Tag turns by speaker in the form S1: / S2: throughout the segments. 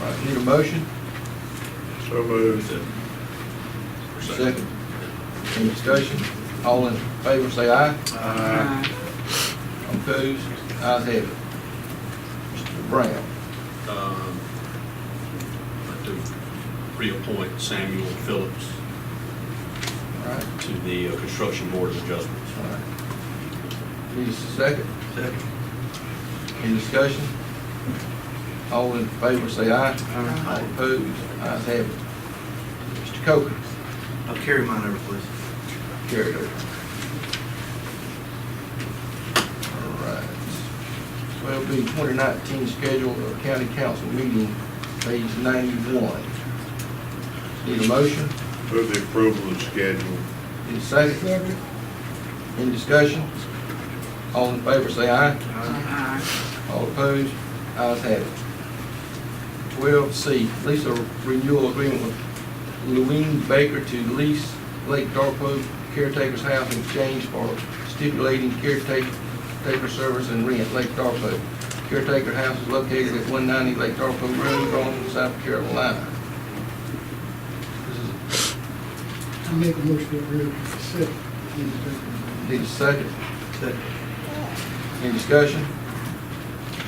S1: Right, need a motion?
S2: So moved.
S1: Second. Any discussion? All in favor, say aye.
S3: Uh,
S2: Aye.
S1: Opposed? Ayes have it. Mr. Brown.
S3: um, to reappoint Samuel Phillips
S1: All right,
S3: to the uh, Construction Board of Adjustments.
S1: all right. Need a second?
S3: Second.
S1: Any discussion? All in favor, say aye.
S4: Aye.
S1: All Opposed? Ayes have it. Mr. Coker.
S4: I'll carry mine over, please.
S1: Carried over. All right. Twelve B, twenty nineteen schedule of county council meeting, page ninety-one. Need a motion?
S2: Move the approval of schedule.
S1: Need a second? Any discussion? All in favor, say aye. All opposed? Ayes have it. Twelve C, lease or renewal agreement with Louine Baker to lease Lake Darkwood caretaker's house in exchange for stipulating caretaker taker service and rent, Lake Darkwood. Caretaker house is located at one ninety Lake Darkwood Road, Rome, South Carolina. This is,
S5: I make a motion to approve the consent agenda.
S1: need a second.
S4: Second.
S1: Any discussion?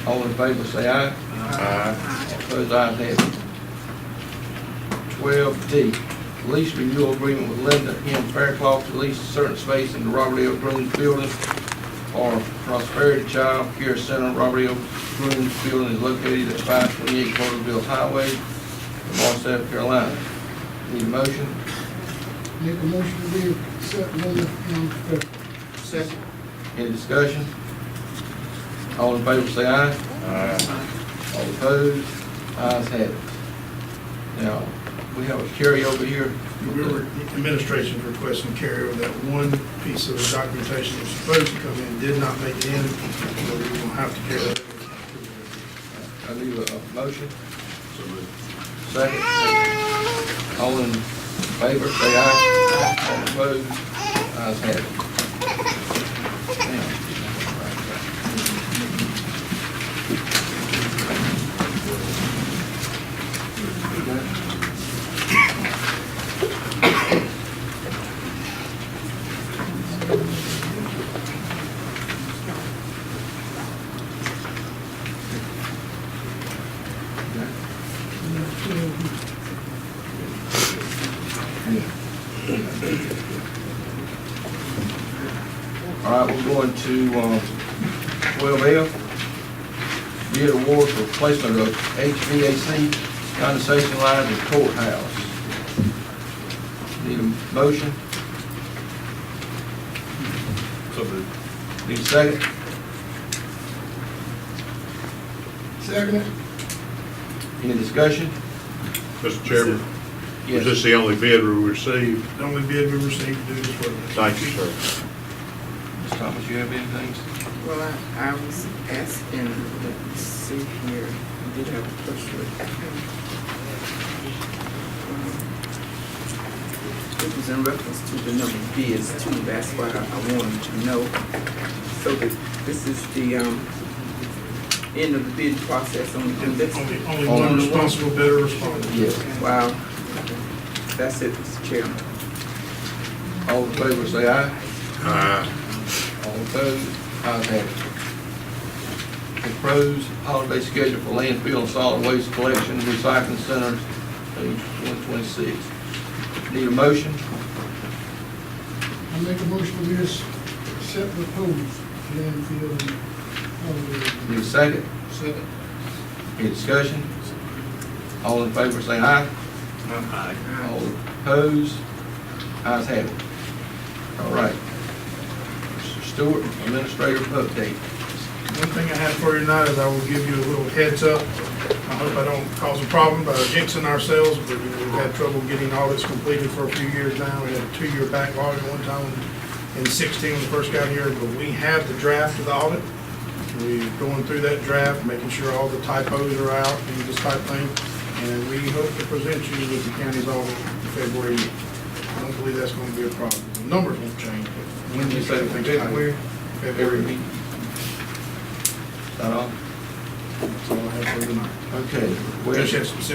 S1: All in favor, say aye.
S2: Aye.
S1: Opposed, ayes have it. Twelve D, lease renewal agreement with Linda M. Faircloth to lease certain space in the Robert L. Green Building or Prosperity Child Care Center. Robert L. Green Building is located at five twenty-eight Porterville Highway, Lamar, South Carolina. Need a motion?
S5: Make a motion to leave consent agenda on the
S4: Second.
S1: Any discussion? All in favor, say aye.
S2: Aye.
S1: All opposed, ayes have it. Now, we have a carryover here.
S6: We were, administration's requesting carryover that one piece of documentation that was supposed to come in, did not make it in, so we're gonna have to carry that.
S1: I need a a motion,
S3: So moved.
S1: second. All in favor, say aye. All opposed, ayes have it. Now.
S5: fifth.
S1: All right, we're going to um, twelve F. Bid award for placement of HVAC condensation lines in courthouse. Need a motion,
S3: So moved.
S1: need a second?
S5: Second.
S1: Any discussion?
S2: Mr. Chairman, was
S1: Yes.
S2: this the only bid we received?
S6: The only bid we received to do this work.
S2: Thank you, sir.
S1: Ms. Thomas, you have anything?
S7: Well, I, I was asking, let's see here, did I push it? I think, um, It was in reference to the number of bids too, that's why I I wanted to know. So that this is the, um, end of the bid process on, on this.
S6: Only, only
S1: Only
S6: one
S1: one.
S6: responsible bidder responded.
S1: Yes.
S7: Wow. That's it, Mr. Chairman.
S1: All in favor, say aye.
S2: Aye.
S1: All opposed, ayes have it. Proposed holiday schedule for landfill and solid waste collection and recycling centers, page one twenty-six. Need a motion?
S5: I make a motion to leave consent proposed landfill and
S1: Need a
S5: holiday.
S1: second?
S5: Second.
S1: Any discussion? All in favor, say aye.
S3: Aye.
S1: All opposed, ayes have it. All right. Mr. Stewart, administrative update.
S6: One thing I have for you tonight is I will give you a little heads up. I hope I don't cause a problem by jinxing ourselves, but we've had trouble getting audits completed for a few years now. We had a two-year backlog at one time in sixteen, when we first got here, but we have the draft of the audit. We're going through that draft, making sure all the typos are out and this type of thing. And we hope to present you with the county's audit in February. I don't believe that's gonna be a problem. The numbers won't change, but when you say things.
S1: February?
S6: February.
S1: Is that all? That's all I have for tonight.
S8: Okay. well-
S1: Just have some